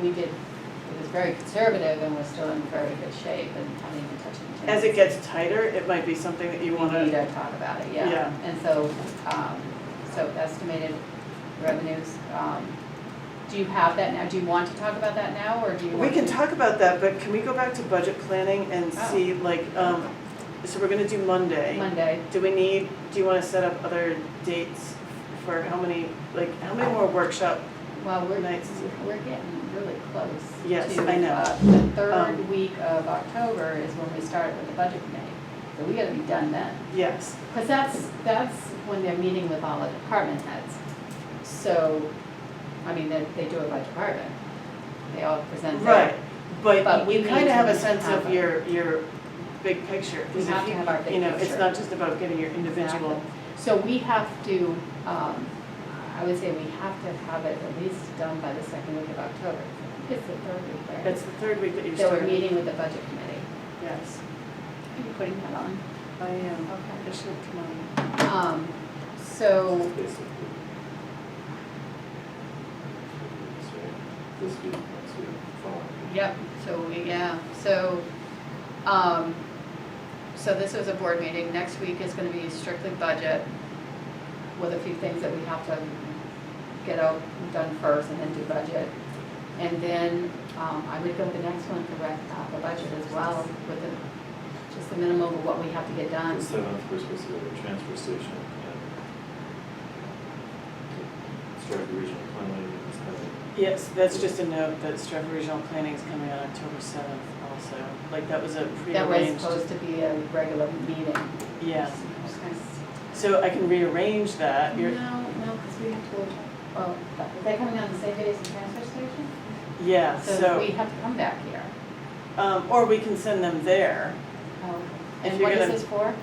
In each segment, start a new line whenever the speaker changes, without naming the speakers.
we did, it was very conservative and we're still in very good shape and haven't even touched anything.
As it gets tighter, it might be something that you
We need
wanna,
to talk about it, yeah.
Yeah.
And so, um, so estimated revenues, um, do you have that now? Do you want to talk about that now or do you
we
want?
can
to-
talk about that, but can we go back to budget planning and
Oh.
see like, um, so we're gonna do Monday.
Monday.
Do we need, do you wanna set up other dates for how many, like, how many more workshop?
Well, we're,
Nice.
we're getting really close.
Yes,
to,
I know.
uh, The third
Um,
week of October is when we start with the budget committee. So we gotta be done then.
Yes,
Because that's, that's when they're meeting with all the department heads. So, I mean, they, they do it by department. They all present
right,
their, But
but
we
you
need
kinda have
to
a sense
have
of
a-
your, your big picture. 'cause
We
if
have to
you-
have our big
You know, it's
picture.
not just about getting your individual,
so we have to, um, I would say we have to have it at least done by the second week of October. I think It's the third week, right?
it's the third week that you're
So we're
starting.
meeting with the budget committee.
Yes,
Are you putting that on?
I am.
Okay.
It should come on.
Um, so,
This week, next week, following.
Yep, so we, yeah, so, um, so this is a board meeting, next week is gonna be strictly budget with a few things that we have to get out, done first and then do budget. And then, um, I would go with the next one for rec, uh, for budget as well, with the, just the minimum of what we have to get done.
The seventh, we're supposed to go to the transfer station and start the regional planning and stuff.
Yes, that's just a note that Stratford Regional Planning is coming on October seventh also, like that was a
That was
prearranged.
supposed to be a regular meeting.
Yeah,
Okay.
so I can rearrange that,
No,
you're,
no, because we have to, go- oh, is that coming on the same day as the transfer station?
yeah,
So we
so,
have to come back here.
um, or we can send them there.
Oh,
If
And
you're
what is
gonna-
this for?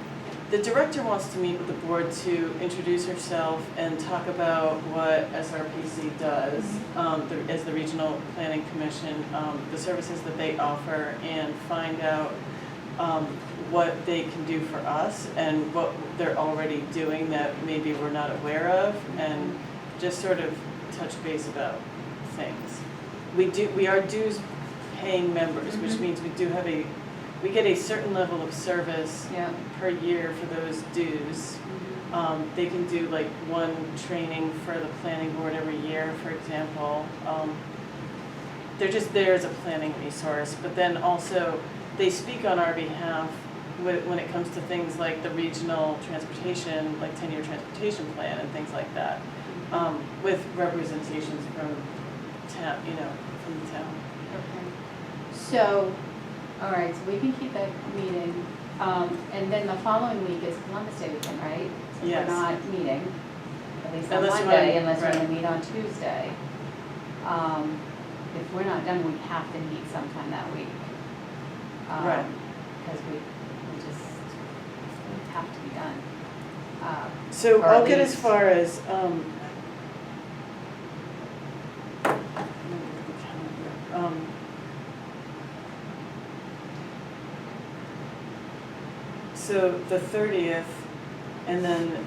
The director wants to meet with the board to introduce herself and talk about what SRPC does um, the- as the Regional Planning Commission, um, the services that they offer, and find out um, what they can do for us and what they're already doing that maybe we're not aware of, and just sort of touch base about things. We do, we are dues paying members, which
Mhm.
means we do have a, we get a certain level of service
Yeah.
per year for those dues. Um, they can do like one training for the planning board every year, for example. Um, they're just there as a planning resource, but then also they speak on our behalf when, when it comes to things like the regional transportation, like ten-year transportation plan and things like that. Um, with representations from town, you know, from the town.
Okay. So, all right, so we can keep that meeting. Um, And then the following week is Columbus Day weekend, right? So
Yes.
we're not meeting, at least on
Unless you
Monday,
wanna-
unless we're going
right.
to meet on Tuesday. Um, If we're not done, we have to meet sometime that week.
Right.
Because we, we just have to be done. Uh,
So
Or
I'll
at
get as
least-
far as, um. um, So the thirtieth, and then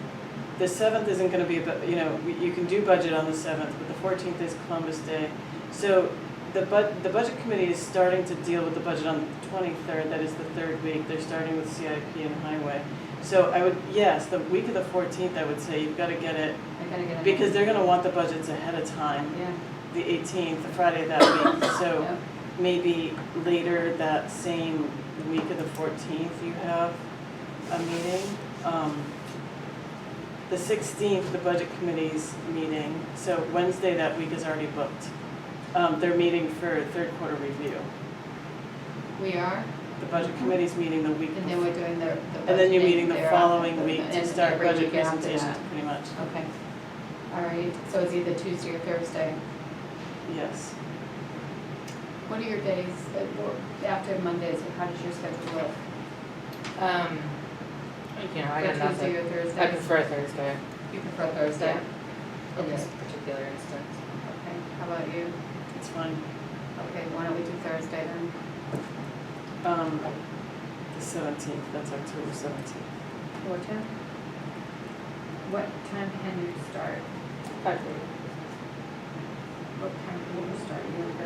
the seventh isn't gonna be, about- you know, we- you can do budget on the seventh, but the fourteenth is Columbus Day. So the bud, the budget committee is starting to deal with the budget on the twenty-third, that is the third week, they're starting with CIP and highway. So I would, yes, the week of the fourteenth, I would say, you've gotta get it,
I gotta get. a-
because they're gonna want the budgets ahead of time,
Yeah,
the eighteenth, the Friday of that week, so
yeah.
maybe later that same week of the fourteenth, you have a meeting. Um, The sixteenth, the budget committee's meeting, so Wednesday that week is already booked. Um, they're meeting for third quarter review,
We are,
the budget committee's meeting the week
Mm-hmm. and then we're doing the.
And then you're meeting the following week to start budget presentations, pretty much,
Okay. All right, so it's either Tuesday or Thursday.
yes.
What are your days that work after Mondays, or how does your schedule look?
Um, you know, I
For
got
Tuesday
nothing.
or Thursday?
I prefer Thursday
You prefer Thursday?
in
Okay.
this particular instance.
Okay, how about you?
It's fine.
Okay, why don't we do Thursday then?
Um, the seventeenth, that's October seventeenth.
What time? What time can you start?
Five thirty.
What time can you start? You have to